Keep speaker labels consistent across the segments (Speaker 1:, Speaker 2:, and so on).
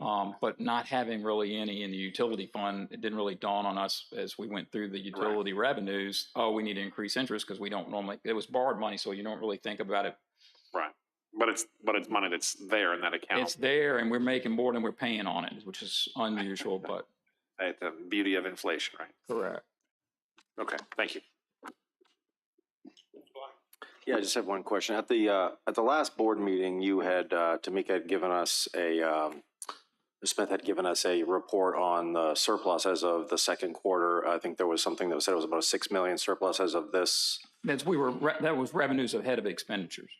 Speaker 1: Um, but not having really any in the utility fund, it didn't really dawn on us as we went through the utility revenues. Oh, we need to increase interest because we don't normally, it was borrowed money, so you don't really think about it.
Speaker 2: But it's, but it's money that's there in that
Speaker 1: It's
Speaker 2: account.
Speaker 1: there and we're making more than we're paying on it, which is unusual, but
Speaker 2: It's the beauty of inflation, right?
Speaker 1: correct.
Speaker 2: Okay, thank you.
Speaker 3: Yeah, I just have one question. At the, uh, at the last board meeting, you had, uh, Tamika had given us a, um, Ms. Smith had given us a report on the surplus as of the second quarter. I think there was something that was said it was about a six million surplus as of this
Speaker 1: That's, we were, re- that was revenues ahead of expenditures.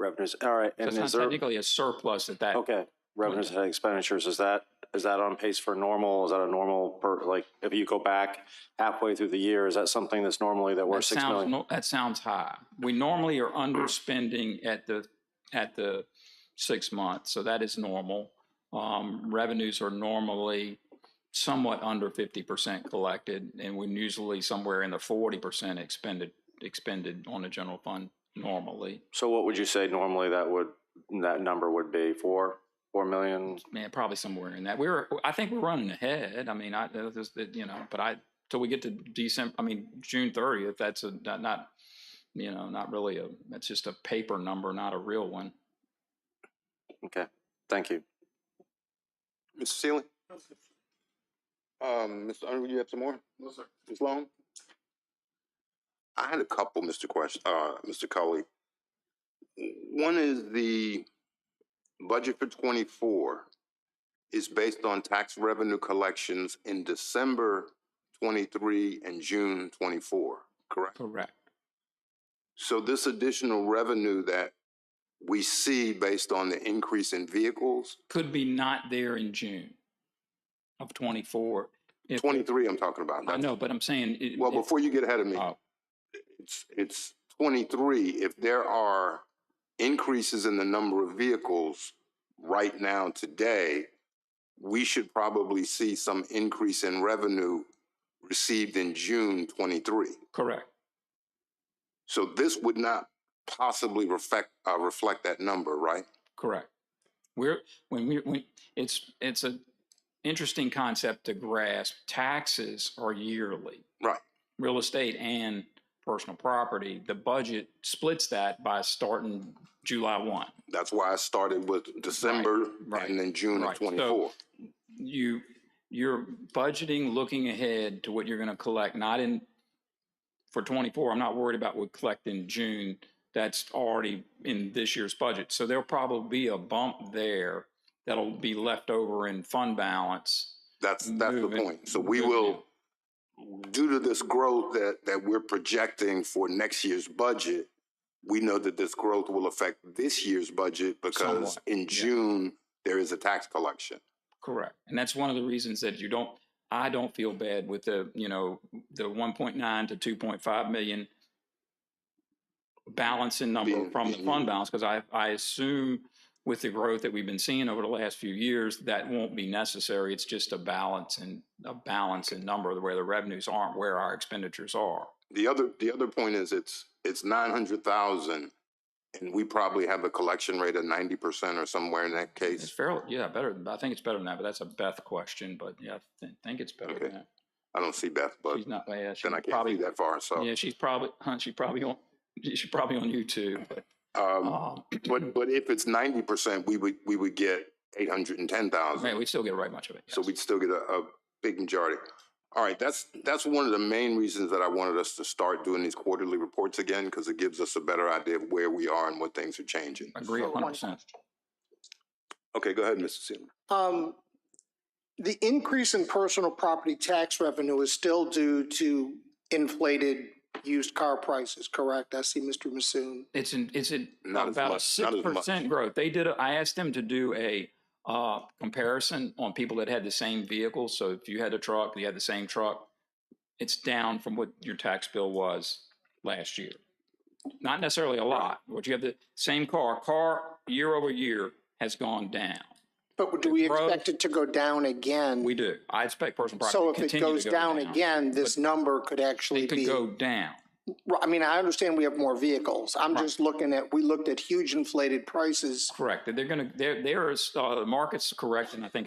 Speaker 3: revenues. All right.
Speaker 1: So
Speaker 3: And
Speaker 1: it's
Speaker 3: is
Speaker 1: not
Speaker 3: there, Oh,
Speaker 1: technically a surplus at that.
Speaker 3: okay, revenues and expenditures, is that, is that on pace for normal? Is that a normal per, like, if you go back halfway through the year, is that something that's normally that we're
Speaker 1: That
Speaker 3: six
Speaker 1: sounds,
Speaker 3: million?
Speaker 1: no- that sounds high. We normally are underspending at the, at the six months, so that is normal. Um, revenues are normally somewhat under fifty percent collected, and we're usually somewhere in the forty percent expended, expended on the general fund normally.
Speaker 3: So what would you say normally that would, that number would be? Four, four million?
Speaker 1: Man, probably somewhere in that. We were, I think we're running ahead. I mean, I, that was the- you know, but I, till we get to December, I mean, June thirtieth, that's a, not, not, you know, not really a, that's just a paper number, not a real one.
Speaker 3: Okay, thank you.
Speaker 4: Mr. Sealy? Um, Mr. Underwood, you have some more? No, sir. Ms. Long? I had a couple, Mr. Question, uh, Mr. Cully. One is the budget for twenty-four is based on tax revenue collections in December twenty-three and June twenty-four, correct?
Speaker 1: Correct.
Speaker 4: So this additional revenue that we see based on the increase in vehicles,
Speaker 1: Could be not there in June of twenty-four. If-
Speaker 4: twenty-three I'm talking about.
Speaker 1: I
Speaker 4: not-
Speaker 1: know, but I'm saying. it-
Speaker 4: Well,
Speaker 1: it-
Speaker 4: before you get ahead of me,
Speaker 1: oh,
Speaker 4: it's, it's twenty-three, if there are increases in the number of vehicles right now today, we should probably see some increase in revenue received in June twenty-three.
Speaker 1: Correct.
Speaker 4: So this would not possibly reflect, uh, reflect that number, right?
Speaker 1: Correct. We're, when we, when, it's, it's a interesting concept to grasp. Taxes are yearly.
Speaker 4: Right.
Speaker 1: Real estate and personal property. The budget splits that by starting July one.
Speaker 4: That's why I started with December
Speaker 1: right,
Speaker 4: and then June
Speaker 1: right.
Speaker 4: of
Speaker 1: So-
Speaker 4: twenty-four.
Speaker 1: you you're budgeting looking ahead to what you're going to collect not in for 24 i'm not worried about what we collect in june that's already in this year's budget so there'll probably be a bump there that'll be left over in fund balance
Speaker 4: That's, that's the
Speaker 1: moving-
Speaker 4: point. So we
Speaker 1: moving
Speaker 4: will,
Speaker 1: in.
Speaker 4: due to this growth that, that we're projecting for next year's budget, we know that this growth will affect this year's budget because
Speaker 1: Somewhat,
Speaker 4: in June, there is a tax collection.
Speaker 1: Correct. And that's one of the reasons that you don't, I don't feel bad with the, you know, the one point nine to two point five million balancing number
Speaker 4: Being-
Speaker 1: from the fund balance, because I, I assume with the growth that we've been seeing over the last few years, that won't be necessary. It's just a balance and a balance in number where the revenues aren't where our expenditures are.
Speaker 4: The other, the other point is it's, it's nine hundred thousand and we probably have a collection rate of ninety percent or somewhere in that
Speaker 1: It's
Speaker 4: case.
Speaker 1: fairly, yeah, better, than- I think it's better than that, but that's a Beth question, but yeah, I thi- think it's better
Speaker 4: Okay.
Speaker 1: than that.
Speaker 4: I don't see Beth, but
Speaker 1: She's not, yeah, she's
Speaker 4: then I can't see
Speaker 1: probably,
Speaker 4: that far, so.
Speaker 1: yeah, she's probably, huh, she's probably on, she's probably on YouTube, but
Speaker 4: Um,
Speaker 1: Um,
Speaker 4: but, but if it's ninety percent, we would, we would get eight hundred and ten thousand.
Speaker 1: man, we still get right much of it.
Speaker 4: So
Speaker 1: yes.
Speaker 4: we'd still get a, a big majority. All right, that's, that's one of the main reasons that I wanted us to start doing these quarterly reports again, because it gives us a better idea of where we are and what things are changing.
Speaker 1: agree
Speaker 5: So, one
Speaker 1: hundred percent.
Speaker 4: Okay, go ahead, Mr. Sealy.
Speaker 5: Um, the increase in personal property tax revenue is still due to inflated used car prices, correct? I see Mr. Masoon.
Speaker 1: It's in, it's in
Speaker 4: Not as
Speaker 1: about a
Speaker 4: much, not
Speaker 1: six
Speaker 4: as much.
Speaker 1: percent growth. They did, a- I asked them to do a, uh, comparison on people that had the same vehicle. So if you had a truck, you had the same truck, it's down from what your tax bill was last year. Not necessarily a lot, but you have the same car, car year over year has gone down.
Speaker 5: But do we
Speaker 1: Growth-
Speaker 5: expect it to go down again?
Speaker 1: We do. I expect personal property
Speaker 5: So
Speaker 1: to
Speaker 5: if it
Speaker 1: continue
Speaker 5: goes
Speaker 1: to go down.
Speaker 5: down again, this number could actually
Speaker 1: It could
Speaker 5: be,
Speaker 1: go down.
Speaker 5: Well, I mean, I understand we have more vehicles. I'm just looking at, we looked at huge inflated prices
Speaker 1: Correct. They're going to, there, there is, uh, the market's correct, and I think